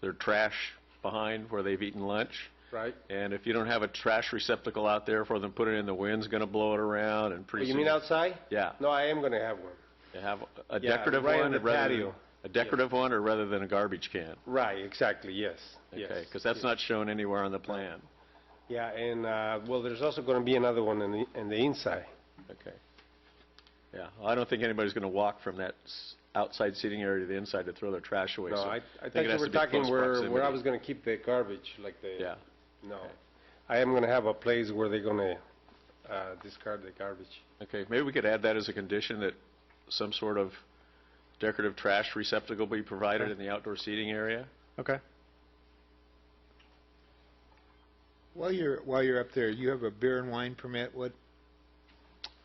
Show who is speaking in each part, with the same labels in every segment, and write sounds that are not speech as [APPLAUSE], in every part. Speaker 1: their trash behind where they've eaten lunch.
Speaker 2: right?
Speaker 1: And if you don't have a trash receptacle out there for them, put it in, the wind's going to blow it around and pretty
Speaker 2: You
Speaker 1: soon...
Speaker 2: mean outside?
Speaker 1: Yeah.
Speaker 2: No, I am going to have one.
Speaker 1: You have a
Speaker 2: Yeah,
Speaker 1: decorative
Speaker 2: right
Speaker 1: one
Speaker 2: on the
Speaker 1: rather than...
Speaker 2: patio.
Speaker 1: A decorative one or rather than a garbage can?
Speaker 2: Right, exactly, yes, yes.
Speaker 1: Okay, because that's not shown anywhere on the plan.
Speaker 2: Yeah, and, uh, well, there's also going to be another one in the, in the inside.
Speaker 1: Okay. Yeah, I don't think anybody's going to walk from that s- outside seating area to the inside to throw their trash away.
Speaker 2: No,
Speaker 1: so
Speaker 2: I, I
Speaker 1: it
Speaker 2: thought you
Speaker 1: has
Speaker 2: were
Speaker 1: to be
Speaker 2: talking
Speaker 1: close
Speaker 2: where, where I
Speaker 1: proximity.
Speaker 2: was going to keep the garbage, like the...
Speaker 1: Yeah,
Speaker 2: No. I am going to have a place where they're going to, uh, discard the garbage.
Speaker 1: okay, maybe we could add that as a condition, that some sort of decorative trash receptacle be provided in the outdoor seating area?
Speaker 3: Okay.
Speaker 4: While you're, while you're up there, you have a beer and wine permit, what,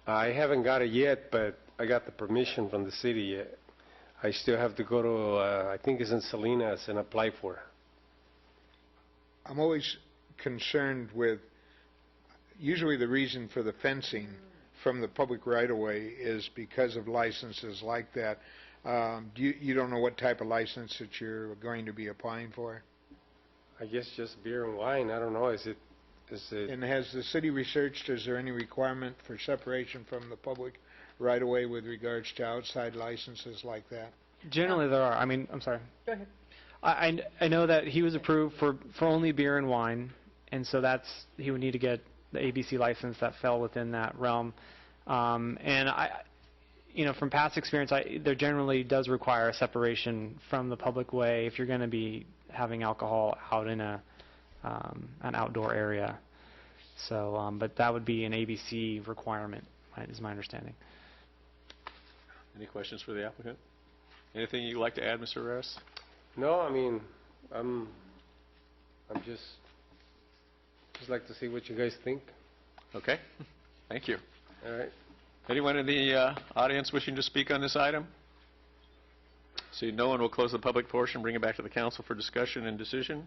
Speaker 2: I haven't got it yet, but I got the permission from the city yet. I still have to go to, uh, I think it's in Salinas and apply for it.
Speaker 4: I'm always concerned with, usually the reason for the fencing from the public right-of-way is because of licenses like that. Um, do you, you don't know what type of license that you're going to be applying for?
Speaker 2: I guess just beer and wine, I don't know, is it, is it,
Speaker 4: And has the city researched, is there any requirement for separation from the public right-of-way with regards to outside licenses like that?
Speaker 3: Generally, there are. I mean, I'm sorry.
Speaker 5: Go ahead.
Speaker 3: I, I kn- I know that he was approved for, for only beer and wine, and so that's he would need to get the ABC license that fell within that realm. Um, and I, you know, from past experience, I there generally does require a separation from the public way if you're going to be having alcohol out in a um, an outdoor area. So, um, but that would be an ABC requirement, my- is my understanding.
Speaker 1: Any questions for the applicant? Anything you'd like to add, Mr. Rares?
Speaker 2: no, I mean, I'm, I'm just, just like to see what you guys think,
Speaker 1: Okay, [LAUGHS] thank you.
Speaker 2: all right?
Speaker 1: Anyone in the uh, audience wishing to speak on this item? Seeing no one, will close the public portion, bring it back to the council for discussion and decision.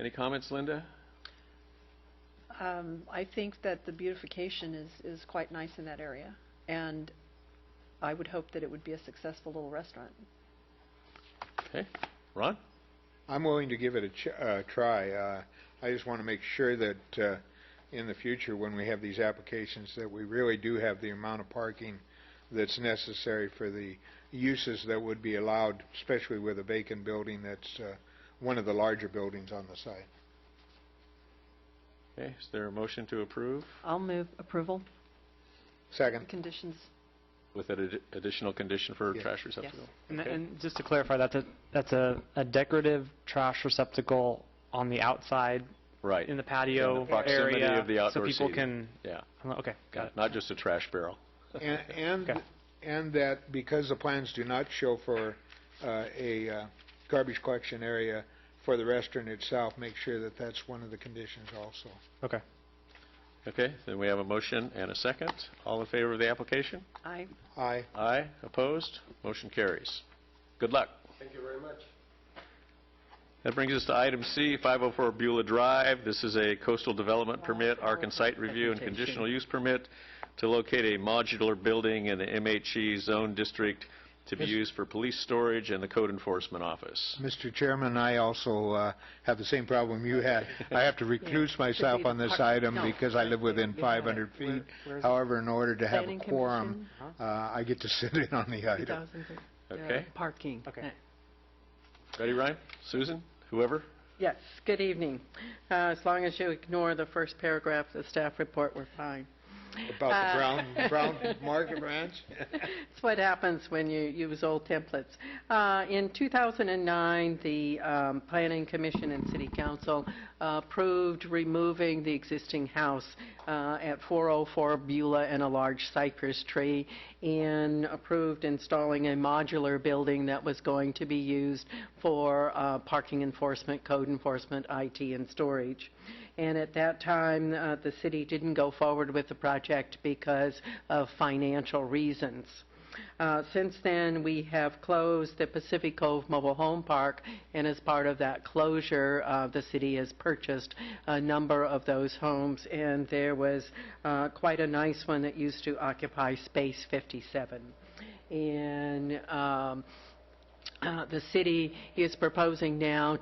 Speaker 1: Any comments, Linda?
Speaker 5: Um, I think that the beautification is, is quite nice in that area, and I would hope that it would be a successful little restaurant.
Speaker 1: Okay, Ron?
Speaker 4: I'm willing to give it a ch- uh, try. Uh, I just want to make sure that uh, in the future, when we have these applications, that we really do have the amount of parking that's necessary for the uses that would be allowed, especially with a vacant building that's uh, one of the larger buildings on the site.
Speaker 1: Okay, is there a motion to approve
Speaker 5: I'll move approval,
Speaker 4: Second.
Speaker 5: conditions,
Speaker 1: with an addi- additional condition for
Speaker 4: Yes.
Speaker 1: trash
Speaker 5: yes.
Speaker 1: receptacle?
Speaker 3: And,
Speaker 1: Okay.
Speaker 3: and just to clarify, that's a that's a, a decorative trash receptacle on the outside
Speaker 1: Right,
Speaker 3: in the patio
Speaker 1: proximity
Speaker 3: area,
Speaker 1: of the outdoor
Speaker 3: so people
Speaker 1: seating.
Speaker 3: can.
Speaker 1: yeah,
Speaker 3: Okay, got it.
Speaker 1: not just a trash barrel.
Speaker 4: And, and,
Speaker 3: Okay.
Speaker 4: and that because the plans do not show for uh, a uh, garbage collection area for the restaurant itself, make sure that that's one of the conditions also.
Speaker 3: Okay.
Speaker 1: Okay, then we have a motion and a second. All in favor of the application?
Speaker 5: I,
Speaker 4: Aye.
Speaker 1: Aye, opposed? Motion carries. Good luck.
Speaker 2: Thank you very much.
Speaker 1: That brings us to item C, 504 Beulah Drive. This is a coastal development permit, arc and site review, and conditional use permit to locate a modular building in the MHE zone district to be used for police storage and the code enforcement office.
Speaker 4: Mr. Chairman, I also uh, have the same problem you had. I
Speaker 5: [LAUGHS]
Speaker 4: have to recluse myself on this
Speaker 5: Part-
Speaker 4: item
Speaker 5: no.
Speaker 4: because I live within 500 feet. However, in order to have a
Speaker 5: Planning
Speaker 4: quorum, uh, I get to sit in
Speaker 5: [LAUGHS]
Speaker 4: on the item.
Speaker 1: Okay.
Speaker 6: Parking.
Speaker 3: Okay.
Speaker 1: Ready, Ryan? Susan? Whoever?
Speaker 6: Yes, good evening. Uh, As long as you ignore the first paragraph of the staff report, we're fine.
Speaker 4: About
Speaker 5: Uh,
Speaker 4: the brown,
Speaker 5: [LAUGHS]
Speaker 4: brown market ranch?
Speaker 6: It's what happens when you use old templates. Uh, In 2009, the um, Planning Commission and City Council uh, approved removing the existing house uh, at 404 Beulah and a large cypress tree, and approved installing a modular building that was going to be used for uh, parking enforcement, code enforcement, IT, and storage. And at that time, uh, the city didn't go forward with the project because of financial reasons. Uh, Since then, we have closed the Pacific Cove Mobile Home Park, and as part of that closure, uh, the city has purchased a number of those homes, and there was uh, quite a nice one that used to occupy Space 57. And um, uh, the city is proposing now